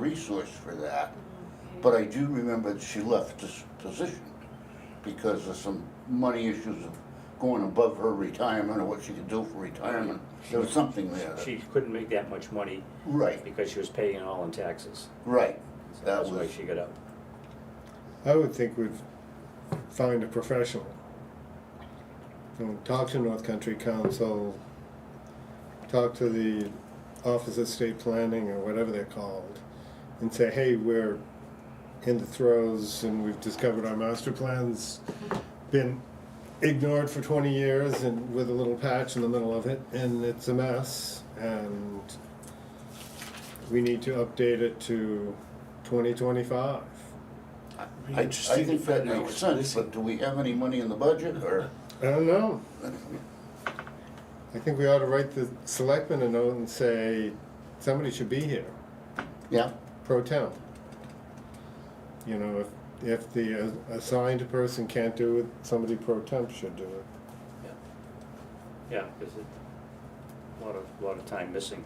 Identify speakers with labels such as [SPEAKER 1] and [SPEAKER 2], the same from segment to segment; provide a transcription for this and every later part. [SPEAKER 1] resource for that. But I do remember that she left this position because of some money issues of going above her retirement or what she could do for retirement. There was something there. that-
[SPEAKER 2] She couldn't make that much money
[SPEAKER 1] Right,
[SPEAKER 2] because she was paying it all in taxes.
[SPEAKER 1] right.
[SPEAKER 2] So
[SPEAKER 1] That
[SPEAKER 2] That's why
[SPEAKER 1] was,
[SPEAKER 2] she got out.
[SPEAKER 3] I would think we'd find a professional. You know, talk to North Country Council, talk to the Office of State Planning or whatever they're called, and say, hey, we're in the throes and we've discovered our master plan's been ignored for twenty years and with a little patch in the middle of it, and it's a mess, and we need to update it to twenty twenty-five.
[SPEAKER 1] I, I think that makes sense, but do we have any money in the budget or?
[SPEAKER 3] I don't know. I think we ought to write the selectmen a note and say, somebody should be here,
[SPEAKER 1] Yeah,
[SPEAKER 3] pro temp. You know, if, if the uh, assigned person can't do it, somebody pro temp should do it.
[SPEAKER 2] Yeah, because a lot of, lot of time missing.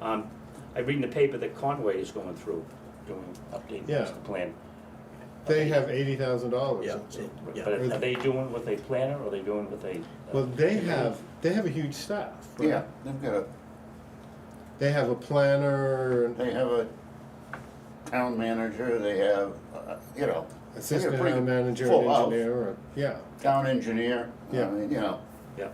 [SPEAKER 2] Um, I read in the paper that Conway is going through, doing, updating
[SPEAKER 3] Yeah.
[SPEAKER 2] the plan.
[SPEAKER 3] They have eighty thousand dollars.
[SPEAKER 4] Yeah,
[SPEAKER 2] But
[SPEAKER 4] yeah.
[SPEAKER 2] are they doing what they plan or are they doing what they?
[SPEAKER 3] Well, they have, they have a huge staff. right?
[SPEAKER 1] yeah, they've got a,
[SPEAKER 3] They have a planner, and
[SPEAKER 1] they have a town manager, they have, uh, you know. they got a
[SPEAKER 3] assistant
[SPEAKER 1] pretty
[SPEAKER 3] town manager,
[SPEAKER 1] full
[SPEAKER 3] and
[SPEAKER 1] house.
[SPEAKER 3] engineer, or, yeah.
[SPEAKER 1] Town engineer, I
[SPEAKER 3] Yeah.
[SPEAKER 1] mean, you know,
[SPEAKER 2] Yeah,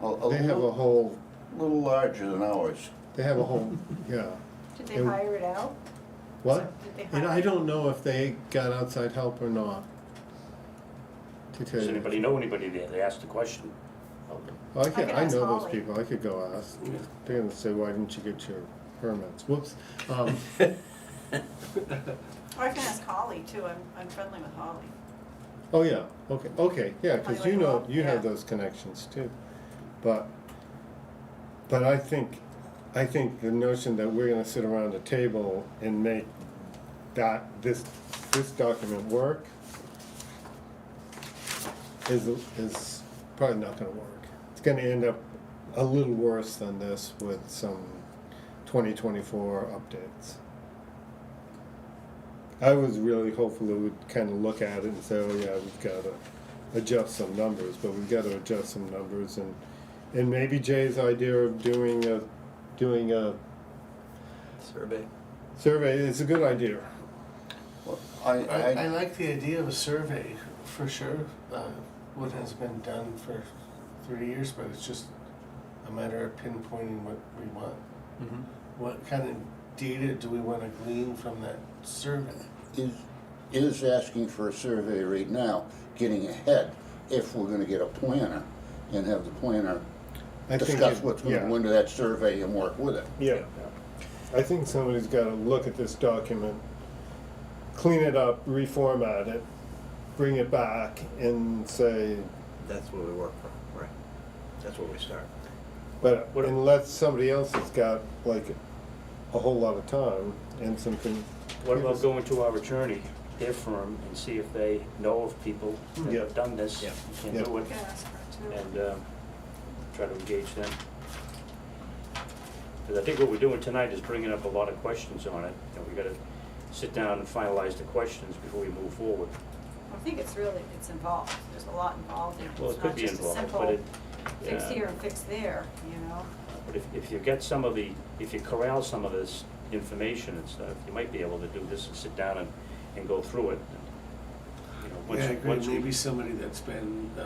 [SPEAKER 1] a, a
[SPEAKER 3] They have a
[SPEAKER 1] little,
[SPEAKER 3] whole,
[SPEAKER 1] little larger than ours.
[SPEAKER 3] they have a whole, yeah.
[SPEAKER 5] Did they hire it out?
[SPEAKER 3] What?
[SPEAKER 5] Did they
[SPEAKER 3] And
[SPEAKER 5] hire-
[SPEAKER 3] I don't know if they got outside help or not. To tell
[SPEAKER 2] does
[SPEAKER 3] you.
[SPEAKER 2] anybody know anybody there? They asked the question.
[SPEAKER 3] Well, I
[SPEAKER 5] I
[SPEAKER 3] could,
[SPEAKER 5] could
[SPEAKER 3] I
[SPEAKER 5] ask
[SPEAKER 3] know those
[SPEAKER 5] Holly.
[SPEAKER 3] people, I could go ask. They're gonna say, why didn't you get your permits? Whoops. Um,
[SPEAKER 5] Or I can ask Holly too, I'm, I'm friendly with Holly.
[SPEAKER 3] oh, yeah, okay, okay, yeah, cause
[SPEAKER 5] Highway
[SPEAKER 3] you know,
[SPEAKER 5] law,
[SPEAKER 3] you have
[SPEAKER 5] yeah.
[SPEAKER 3] those connections too. But, but I think, I think the notion that we're gonna sit around a table and make that, this, this document work is, is probably not gonna work. It's gonna end up a little worse than this with some twenty twenty-four updates. I was really hopeful that we'd kinda look at it and say, oh yeah, we've gotta adjust some numbers, but we've gotta adjust some numbers and, and maybe Jay's idea of doing a, doing a
[SPEAKER 4] Survey.
[SPEAKER 3] survey is a good idea.
[SPEAKER 1] Well, I,
[SPEAKER 6] I, I
[SPEAKER 1] I,
[SPEAKER 6] like the idea of a survey for sure. Uh, what has been done for three years, but it's just a matter of pinpointing what we want.
[SPEAKER 2] Mm-hmm.
[SPEAKER 6] What kind of data do we want to glean from that survey?
[SPEAKER 1] is, is asking for a survey right now, getting ahead, if we're gonna get a planner and have the planner
[SPEAKER 3] I think
[SPEAKER 1] discuss
[SPEAKER 3] it-
[SPEAKER 1] what's gonna
[SPEAKER 3] yeah.
[SPEAKER 1] go into that survey and work with it.
[SPEAKER 3] Yeah, I think somebody's gotta look at this document, clean it up, reformat it, bring it back and say,
[SPEAKER 4] That's what we work from, right. That's where we start.
[SPEAKER 3] but
[SPEAKER 2] What-
[SPEAKER 3] unless somebody else has got like a whole lot of time and something.
[SPEAKER 2] What about going to our attorney, their firm, and see if they know of people that
[SPEAKER 3] Hmm. Yeah.
[SPEAKER 2] have done this,
[SPEAKER 4] Yeah.
[SPEAKER 2] and
[SPEAKER 3] Yeah.
[SPEAKER 2] can do
[SPEAKER 5] I
[SPEAKER 2] it,
[SPEAKER 5] can ask her too.
[SPEAKER 2] and uh, try to engage them. Because I think what we're doing tonight is bringing up a lot of questions on it, and we gotta sit down and finalize the questions before we move forward.
[SPEAKER 5] I think it's really, it's involved, there's a lot involved in it.
[SPEAKER 2] Well, it could be involved, but it.
[SPEAKER 5] It's not just a simple fix
[SPEAKER 2] yeah.
[SPEAKER 5] here and fix there, you know?
[SPEAKER 2] But if, if you get some of the, if you corral some of this information and stuff, you might be able to do this and sit down and, and go through it. You know, once
[SPEAKER 6] yeah, I
[SPEAKER 2] you-
[SPEAKER 6] agree.
[SPEAKER 2] once we-
[SPEAKER 6] Maybe somebody that's been, uh,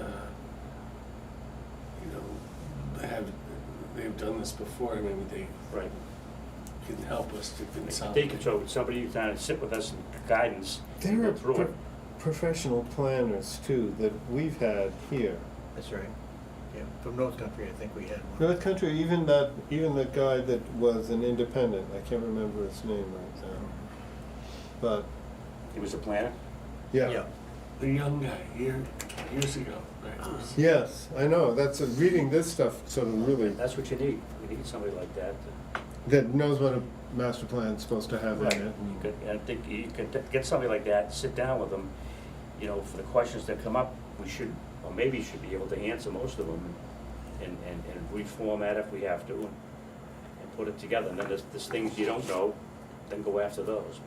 [SPEAKER 6] you know, have they've done this before. Maybe they
[SPEAKER 2] Right.
[SPEAKER 6] can help us to consolidate.
[SPEAKER 2] They could, so somebody who's down and sit with us and guidance, and
[SPEAKER 3] There
[SPEAKER 2] go
[SPEAKER 3] are
[SPEAKER 2] through it.
[SPEAKER 3] pro- professional planners too that we've had here.
[SPEAKER 4] That's right. Yeah, from North Country, I think we had one.
[SPEAKER 3] North Country, even that, even the guy that was an independent, I can't remember his name right now. But,
[SPEAKER 2] He was a planner?
[SPEAKER 4] Yeah.
[SPEAKER 6] The young guy year, years ago, right?
[SPEAKER 2] Uh-huh.
[SPEAKER 3] Yes, I know, that's, a- reading this stuff sort of really,
[SPEAKER 2] That's what you need. You need somebody like that. to-
[SPEAKER 3] that knows what a master plan's supposed to have in
[SPEAKER 2] You
[SPEAKER 3] it.
[SPEAKER 2] could, and I think you could get somebody like that, sit down with them, you know, for the questions that come up, we should, or maybe should be able to answer most of them and, and, and reformat if we have to and, and put it together. And then there's, there's things you don't know, then go after those.